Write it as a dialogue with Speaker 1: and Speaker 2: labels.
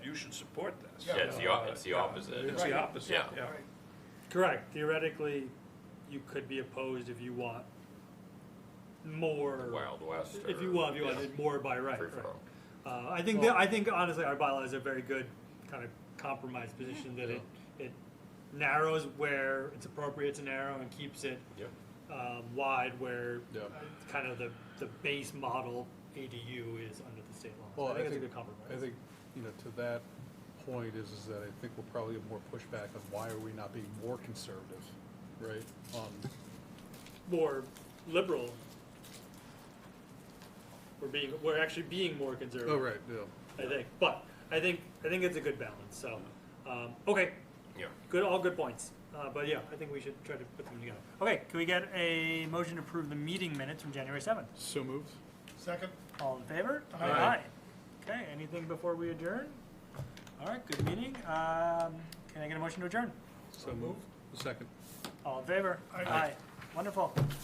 Speaker 1: support this.
Speaker 2: Yeah, it's the, op- it's the opposite.
Speaker 1: It's the opposite,
Speaker 2: Yeah.
Speaker 1: yeah.
Speaker 3: Right.
Speaker 4: Correct. Theoretically, you could be opposed if you want more.
Speaker 2: Wild West or.
Speaker 4: If you want, if you wanted more by right.
Speaker 2: Free
Speaker 4: right.
Speaker 2: for all.
Speaker 4: Uh, I think that, I think honestly, our bylaw is a very good kind of compromise position that it, it narrows where it's appropriate to narrow and keeps it
Speaker 2: Yep.
Speaker 4: um, wide where
Speaker 5: Yeah.
Speaker 4: it's kind of the, the base model ADU is under the state law. So
Speaker 5: Well,
Speaker 4: I think it's a good compromise.
Speaker 5: I think, you know, to that point is, is that I think we'll probably have more pushback on why are we not being more conservative, right? on-
Speaker 4: more liberal. We're being we're actually being more conservative.
Speaker 5: Oh, right, yeah.
Speaker 4: I think, but I think I think it's a good balance. So, um, okay,
Speaker 2: Yeah.
Speaker 4: good, all good points. Uh, but yeah, I think we should try to put them together. Okay, can we get a motion to approve the meeting minutes from January seventh?
Speaker 5: So moved?
Speaker 3: Second,
Speaker 4: All in favor?
Speaker 3: Aye.
Speaker 4: Okay, anything before we adjourn? All right, good meeting. Um, can I get a motion to adjourn?
Speaker 5: So moved. Second.
Speaker 4: All in favor?
Speaker 3: Aye.
Speaker 4: Wonderful.